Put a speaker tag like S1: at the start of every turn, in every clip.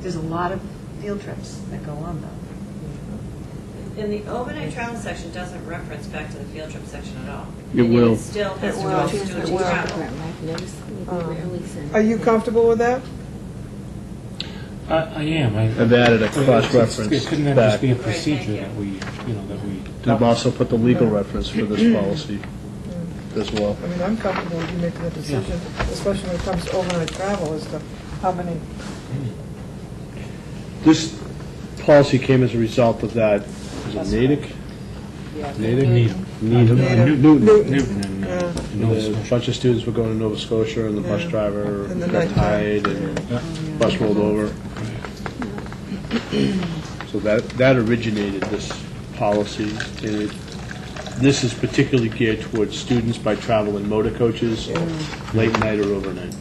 S1: There's a lot of field trips that go on though.
S2: And the overnight travel section doesn't reference back to the field trip section at all.
S3: It will.
S2: It still has to
S4: It
S2: go
S4: will.
S2: to student
S4: It will.
S2: travel.
S4: Are you comfortable with that?
S5: I, I am. I-
S3: I've added a
S5: It's- it's-
S3: cross-reference
S5: Couldn't that just
S3: back.
S5: be a
S2: Right, thank
S5: procedure
S2: you.
S5: that we, you know, that we?
S3: I've also put the legal reference for
S4: Mm-hmm.
S3: this policy as well.
S4: I mean, I'm comfortable with you making the decision, especially when it comes to overnight travel, as to how many,
S3: This policy came as a result of that, is it Natick? Natick?
S5: Needham. Uh,
S3: Needham.
S4: Needham.
S3: Newton.
S4: Newton.
S5: Newton and,
S4: Yeah.
S5: uh, and Nova
S3: And A
S5: Scotia.
S3: bunch of students were going to Nova Scotia, and the bus
S4: Yeah.
S3: driver
S4: And the
S3: got
S4: nighttime.
S3: tired, and bus rolled over. So that, that originated this policy, and it, this is particularly geared towards students by traveling motor coaches, late night or overnight.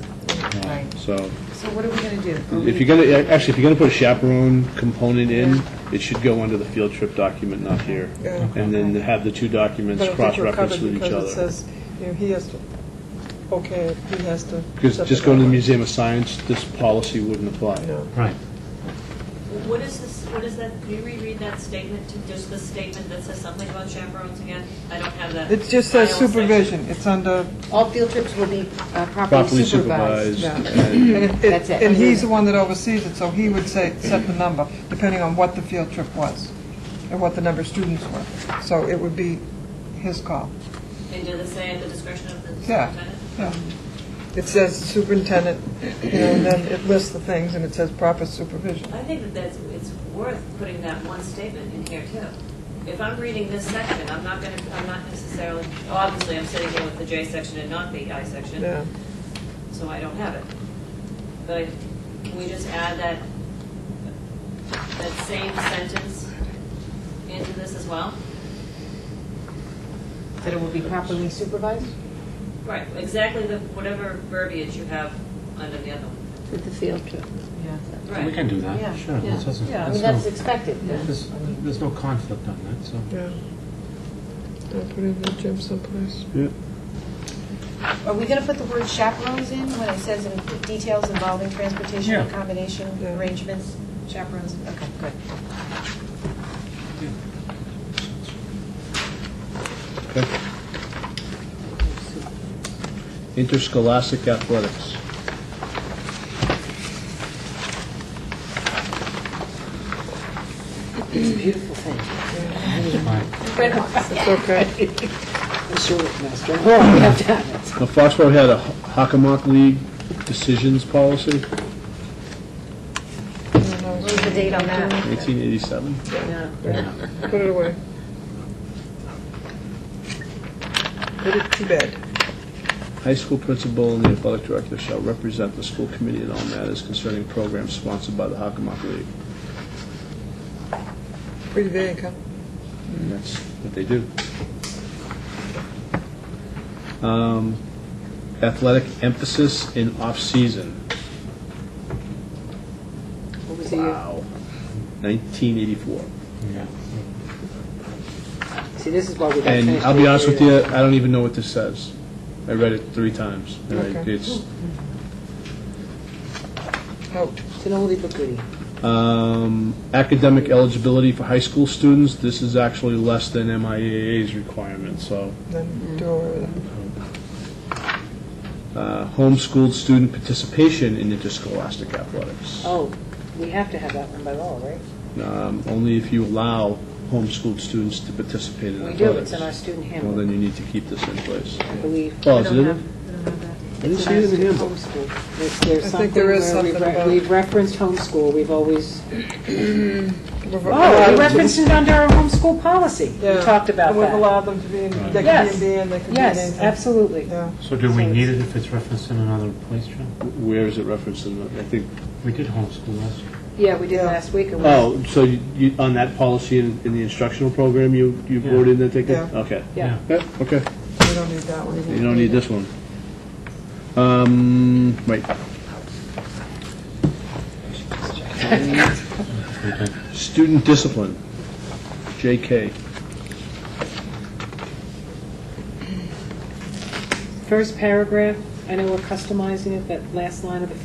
S1: Right.
S3: So,
S1: So what are we going to do? Are
S3: if
S1: we-
S3: you're gonna, actually, if you're gonna put a chaperone component in, it should go under the field trip document, not here.
S4: Yeah.
S3: And then have the two
S4: but
S3: documents
S4: I think we're
S3: cross-referenced
S4: covered
S3: with each other.
S4: because it says, you know, he has to, okay, he has to.
S3: Because
S4: set
S3: just going to the
S4: deadline.
S3: Museum of Science, this policy wouldn't apply.
S4: No.
S5: Right.
S2: What is this, what is that, can you reread that statement, to just the statement that says something about chaperones again? I don't have that.
S4: It just says
S2: final section.
S4: supervision, it's under,
S1: All field trips will be uh, properly
S3: Properly
S1: supervised.
S3: supervised.
S4: yeah.
S3: and-
S4: And it-
S1: That's it.
S4: it- and he's the one that oversees it, so he would say, set the number, depending on what the field trip was, and what the number of students were. So it would be his call,
S2: And did it say at the discretion of the
S4: Yeah.
S2: superintendent?
S4: yeah. It says superintendent, you know, and then it lists the things, and it says proper supervision.
S2: I think that that's, it's worth putting that one statement in here too. If I'm reading this section, I'm not gonna, I'm not necessarily, obviously, I'm sitting here with the J section and not the I section.
S4: Yeah,
S2: so I don't have it. But I- can we just add that, that same sentence into this as well?
S1: That it will be properly supervised?
S2: Right, exactly the, whatever verbiage you have under the other one.
S6: With the field trip.
S1: Yeah.
S5: We
S2: Right,
S5: can do that,
S1: Yeah.
S5: sure.
S6: Yeah.
S5: That's- that's-
S1: Yeah, I
S5: that's
S1: mean, that's
S5: no-
S1: expected.
S5: There's, there's no conflict on that, so.
S4: yeah. I'll put it in the gym someplace.
S1: Are we going to put the word chaperones in when it says in details involving transportation,
S5: Yeah.
S1: accommodation,
S4: Yeah.
S1: arrangements, chaperones? Okay, good.
S3: Okay. Interscholastic athletics.
S6: It's a beautiful thing.
S5: Fine.
S4: It's okay.
S6: I'm sure it's master. Well, we have to have it.
S3: Now, Foxborough had a Hockomock League decisions policy,
S1: What was the date on that?
S3: 1987.
S4: Put it away. Put it to bed.
S3: High school principal and the athletic director shall represent the school committee in all matters concerning programs sponsored by the Hockomock League.
S4: Pretty vague, huh?
S3: And that's what they do. Um, Athletic emphasis in off-season.
S6: What was the year?
S3: Wow. 1984.
S5: Yeah.
S6: See, this is why we got finished.
S3: And I'll be honest with you, I don't even know what this says. I read it three times. and I-
S4: Okay.
S3: It's,
S4: Out.
S6: It's an oldie but goodie.
S3: um, academic eligibility for high school students, this is actually less than MIAA's requirement, so.
S6: Mm-hmm.
S4: Then do away with it.
S3: Uh, Homeschooled student participation in interscholastic athletics.
S6: Oh, we have to have that one by law, right?
S3: Um, Only if you allow homeschooled students to participate in
S6: We
S3: athletics.
S6: do, it's in our student
S3: Well,
S6: handbook,
S3: then you need to keep this in place.
S6: I believe.
S3: Paul, is it in there? I didn't
S6: It's
S3: see it in the
S6: in our
S3: handbook.
S6: student homeschool. There's- There's
S4: I
S6: something
S4: think there is
S6: where we've
S4: something
S6: re-
S4: about-
S6: We've referenced homeschool, we've always.
S4: We've
S6: Oh, we
S4: allowed-
S6: referenced it under our homeschool policy. We
S4: Yeah.
S6: talked about
S4: And we've
S6: that.
S4: allowed them to be in, they can be
S6: Yes.
S4: in B and they can be in
S6: Yes,
S4: anything.
S6: absolutely.
S4: Yeah.
S5: So do we need it if it's referenced in another place, John?
S3: Where is it referenced in, the- I think,
S5: We did homeschool last year.
S6: Yeah, we did
S4: Yeah.
S6: last week. It was-
S3: oh, so you- you, on that policy in, in the instructional program, you, you
S5: Yeah.
S3: voted in that ticket?
S4: Yeah.
S3: Okay.
S6: Yeah.
S3: Yeah, Okay,
S4: We don't need that one.
S3: you don't need this one. Um, right. Student discipline, JK.
S6: First paragraph, I know we're customizing it, but last line of the